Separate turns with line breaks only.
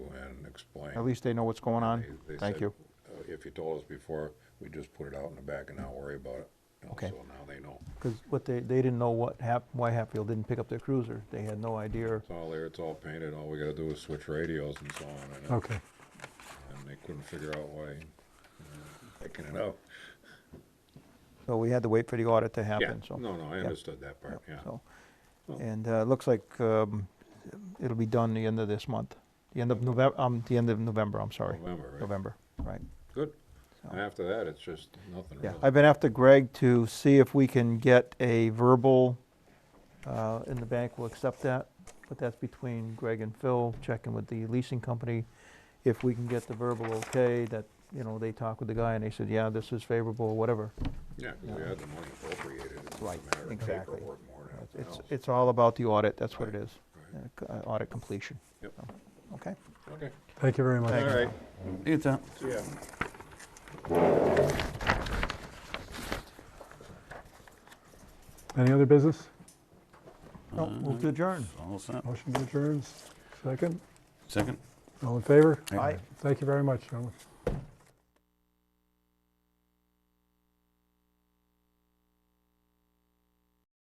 explain.
At least they know what's going on.
They- they
Oh, Thank
said,
you.
uh, If you told us before, we just put it out in the back and not worry about it. You know,
Okay.
So now they know.
Because what they, they didn't know what hap, why Hatfield didn't pick up their cruiser. They had no idea.
It's all there, it's all painted, all we gotta do is switch radios and so on, and,
Okay.
and they couldn't figure out why, you know, picking it up.
So we had to wait for the audit to
Yeah,
happen, so.
no, no, I
yeah,
understood that
yeah,
part, yeah.
so.
Well-
And uh, it looks like um, it'll be done the end of this month, the end of November, um, the end of November, I'm sorry.
November, right?
November, right.
Good.
So-
And after that, it's just nothing
Yeah,
really.
I've been after Greg to see if we can get a verbal, uh, and the bank will accept that, but that's between Greg and Phil, checking with the leasing company. If we can get the verbal okay, that, you know, they talked with the guy and they said, yeah, this is favorable, or whatever.
Yeah, 'cause we
yeah.
had the money appropriated, it's just a
Right,
matter of
exactly.
paperwork more than anything
It's,
else.
it's all about the audit, that's what it
Right,
is,
right.
uh, c- uh, audit completion.
Yep.
So, Okay.
Okay,
Thank you very much.
all right,
See you, Tom.
yeah.
Any other business?
No, move to adjourn.
All set.
Motion to adjourn, second.
Second?
All in favor?
Aye.
Thank you very much, gentlemen.